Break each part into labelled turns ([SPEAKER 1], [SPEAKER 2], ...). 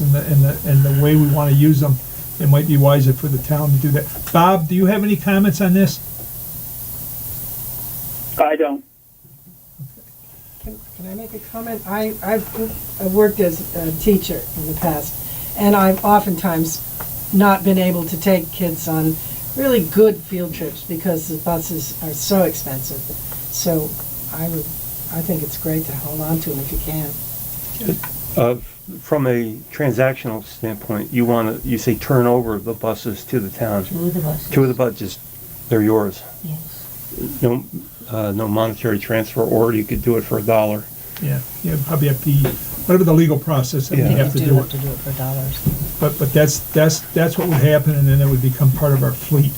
[SPEAKER 1] and the, and the, and the way we want to use them, it might be wiser for the town to do that. Bob, do you have any comments on this?
[SPEAKER 2] I don't.
[SPEAKER 3] Can, can I make a comment? I, I've, I've worked as a teacher in the past, and I've oftentimes not been able to take kids on really good field trips because the buses are so expensive. So I would, I think it's great to hold on to them if you can.
[SPEAKER 4] Uh, From a transactional standpoint, you want to, you say turn over the buses to the town.
[SPEAKER 5] Two of the buses.
[SPEAKER 4] Two of the buses, they're yours.
[SPEAKER 5] Yes.
[SPEAKER 4] No, uh, no monetary transfer, or you could do it for a dollar.
[SPEAKER 1] Yeah, yeah, probably have to, whatever the legal process that we
[SPEAKER 4] Yeah.
[SPEAKER 1] have to
[SPEAKER 5] You
[SPEAKER 1] do.
[SPEAKER 5] have to do it for dollars.
[SPEAKER 1] But, but that's, that's, that's what would happen and then it would become part of our fleet.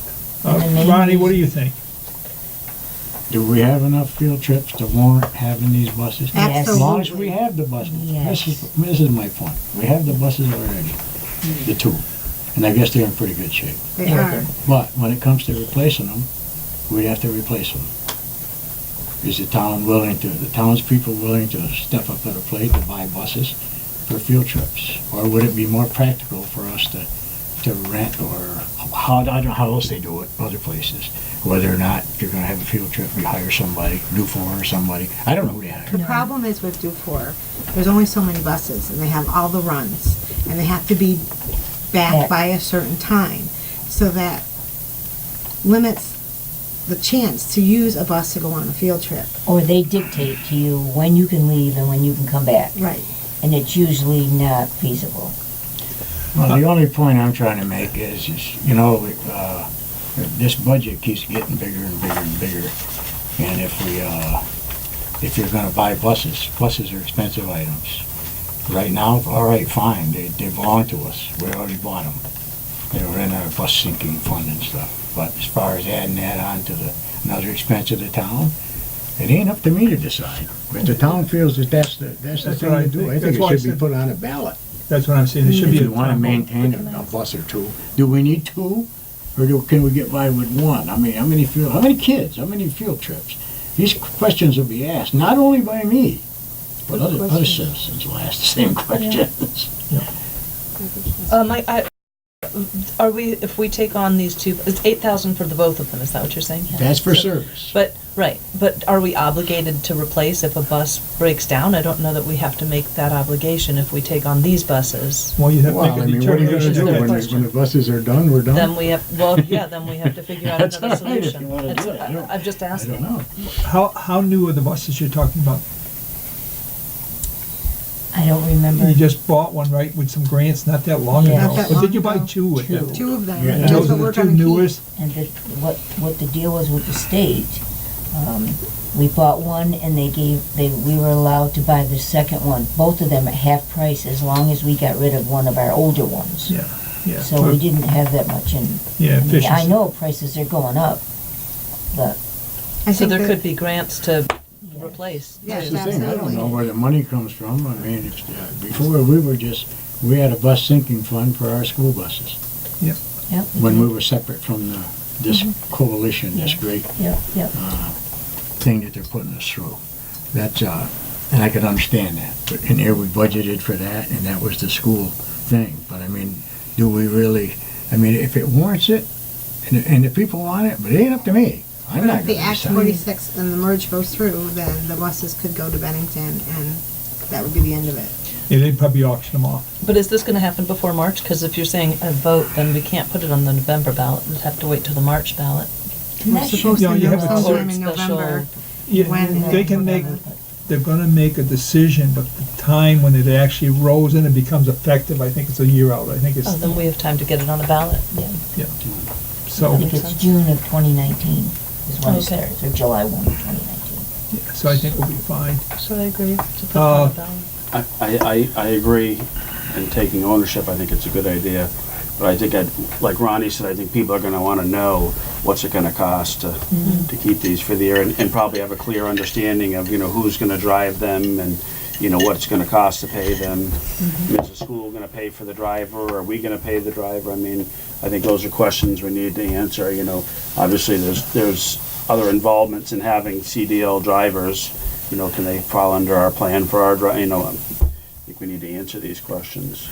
[SPEAKER 1] Uh,
[SPEAKER 5] And the main
[SPEAKER 1] Ronnie, what do
[SPEAKER 5] reason-
[SPEAKER 1] you think?
[SPEAKER 6] Do we have enough field trips to warrant having these buses?
[SPEAKER 5] Yes.
[SPEAKER 6] As long as we have the buses.
[SPEAKER 5] Yes.
[SPEAKER 6] This is, this is my point. We have the buses already, the two. And I guess they're in pretty good shape.
[SPEAKER 5] They are.
[SPEAKER 6] But when it comes to replacing them, we'd have to replace them. Is the town willing to, the townspeople willing to step up to the plate to buy buses for field trips? Or would it be more practical for us to, to rent or, how, I don't know how else they do it, other places? Whether or not you're gonna have a field trip, you hire somebody, Newform or somebody, I don't know who they
[SPEAKER 7] The
[SPEAKER 6] hire.
[SPEAKER 7] problem is with Dufour, there's only so many buses, and they have all the runs, and they have to be
[SPEAKER 5] Back.
[SPEAKER 7] back by a certain time, so that limits the chance to use a bus to go on a field trip.
[SPEAKER 5] Or they dictate to you when you can leave and when you can come back,
[SPEAKER 7] Right.
[SPEAKER 5] and it's usually not feasible.
[SPEAKER 6] Well, the only point I'm trying to make is, is, you know, uh, this budget keeps getting bigger and bigger and bigger. And if we, uh, if you're gonna buy buses, buses are expensive items. Right now, all right, fine, they, they belong to us, we already bought them. They were in our bus sinking fund and stuff. But as far as adding that on to the, another expense of the town, it ain't up to me to decide. If the town feels that that's the, that's the
[SPEAKER 1] That's
[SPEAKER 6] thing
[SPEAKER 1] what I
[SPEAKER 6] to do, I
[SPEAKER 1] think. That's
[SPEAKER 6] think
[SPEAKER 1] why I
[SPEAKER 6] it should be
[SPEAKER 1] said-
[SPEAKER 6] put on a ballot.
[SPEAKER 1] That's what I'm saying. It should
[SPEAKER 6] If
[SPEAKER 1] be. a
[SPEAKER 6] you want to maintain a a bus or two, do we need two? Or do, can we get by with one? I mean, how many field, how many kids, how many field trips? These questions will be asked, not only by me, but other, other citizens will ask the same questions.
[SPEAKER 8] Um, I, I, are we, if we take on these two, it's eight thousand for the both of them, is that what you're saying?
[SPEAKER 6] That's for service.
[SPEAKER 8] But, right, but are we obligated to replace if a bus breaks down? I don't know that we have to make that obligation if we take on these buses.
[SPEAKER 1] Well, you have
[SPEAKER 6] Well,
[SPEAKER 1] to make
[SPEAKER 6] I
[SPEAKER 1] a
[SPEAKER 6] mean, what are you gonna
[SPEAKER 1] determination.
[SPEAKER 6] do
[SPEAKER 1] at that
[SPEAKER 6] when, the-
[SPEAKER 1] point.
[SPEAKER 6] when the buses are done, we're
[SPEAKER 8] Then
[SPEAKER 6] done?
[SPEAKER 8] we have, well, yeah, then we have to figure out
[SPEAKER 6] That's
[SPEAKER 8] another
[SPEAKER 6] all right if you
[SPEAKER 8] solution.
[SPEAKER 6] wanna do
[SPEAKER 8] That's-
[SPEAKER 6] it. I don't-
[SPEAKER 8] I- I'm just
[SPEAKER 6] I don't
[SPEAKER 8] asking.
[SPEAKER 6] know.
[SPEAKER 1] How, how new are the buses you're talking about?
[SPEAKER 5] I don't remember.
[SPEAKER 1] You just bought one, right, with some grants not that long
[SPEAKER 5] Yeah.
[SPEAKER 1] ago.
[SPEAKER 7] Not that
[SPEAKER 1] But did
[SPEAKER 7] long
[SPEAKER 1] you buy
[SPEAKER 7] ago.
[SPEAKER 1] two with that?
[SPEAKER 7] Two of them.
[SPEAKER 6] Yeah.
[SPEAKER 7] and
[SPEAKER 1] And
[SPEAKER 7] that's
[SPEAKER 1] those are
[SPEAKER 7] what we're
[SPEAKER 1] the two
[SPEAKER 7] gonna keep.
[SPEAKER 1] newest?
[SPEAKER 5] And the, what, what the deal was with the state, um, we bought one and they gave, they, we were allowed to buy the second one, both of them at half price as long as we got rid of one of our older ones.
[SPEAKER 1] Yeah, yeah.
[SPEAKER 5] So we didn't have that much in,
[SPEAKER 1] Yeah,
[SPEAKER 5] I mean, I
[SPEAKER 1] efficiency.
[SPEAKER 5] know prices are going up, but
[SPEAKER 7] I
[SPEAKER 8] So
[SPEAKER 7] think
[SPEAKER 8] there
[SPEAKER 7] that-
[SPEAKER 8] could be grants to replace.
[SPEAKER 7] Yes,
[SPEAKER 6] That's the thing, I don't know
[SPEAKER 7] absolutely.
[SPEAKER 6] where the money comes from. I mean, if, uh, before, we were just, we had a bus sinking fund for our school buses.
[SPEAKER 1] Yeah.
[SPEAKER 5] Yeah.
[SPEAKER 6] When we were separate from the, this coalition, this great
[SPEAKER 5] Yep, yep.
[SPEAKER 6] uh, thing that they're putting us through. That's, uh, and I could understand that, but in here we budgeted for that, and that was the school thing, but I mean, do we really, I mean, if it warrants it, and, and the people want it, but it ain't up to me. I'm
[SPEAKER 7] But
[SPEAKER 6] not
[SPEAKER 7] if the
[SPEAKER 6] gonna
[SPEAKER 7] Act
[SPEAKER 6] decide.
[SPEAKER 7] forty-six and the merge goes through, then the buses could go to Bennington, and that would be the end of it.
[SPEAKER 1] Yeah, they'd probably auction them off.
[SPEAKER 8] But is this gonna happen before March? Because if you're saying a vote, then we can't put it on the November ballot. We'd have to wait till the March ballot.
[SPEAKER 7] We're
[SPEAKER 5] Not sure.
[SPEAKER 7] supposed
[SPEAKER 1] No,
[SPEAKER 7] to
[SPEAKER 1] you
[SPEAKER 7] know
[SPEAKER 1] have a
[SPEAKER 7] sometime
[SPEAKER 8] court
[SPEAKER 7] in
[SPEAKER 8] special-
[SPEAKER 7] November. When
[SPEAKER 1] Yeah, they can make,
[SPEAKER 7] November.
[SPEAKER 1] they're gonna make a decision, but the time when it actually rolls in and becomes effective, I think it's a year out. I think
[SPEAKER 8] Oh,
[SPEAKER 1] it's,
[SPEAKER 8] then we have time to get it on the ballot. Yeah.
[SPEAKER 5] I
[SPEAKER 1] so,
[SPEAKER 5] think it's June of twenty nineteen is when it
[SPEAKER 8] Okay.
[SPEAKER 5] starts, or July one of twenty nineteen.
[SPEAKER 1] so I think we'll be fine.
[SPEAKER 8] So I agree to put it
[SPEAKER 1] Uh,
[SPEAKER 8] on the ballot.
[SPEAKER 9] I, I, I I agree in taking ownership, I think it's a good idea, but I think, I'd like Ronnie said, I think people are gonna wanna know what's it gonna cost to, to keep these for the year, and, and probably have a clear understanding of, you know, who's gonna drive them, and, you know, what it's gonna cost to pay them. Is the school gonna pay for the driver, are we gonna pay the driver? I mean, I think those are questions we need to answer, you know. Obviously, there's, there's other involvements in having CDL drivers, you know, can they fall under our plan for our dri, you know, I think we need to answer these questions.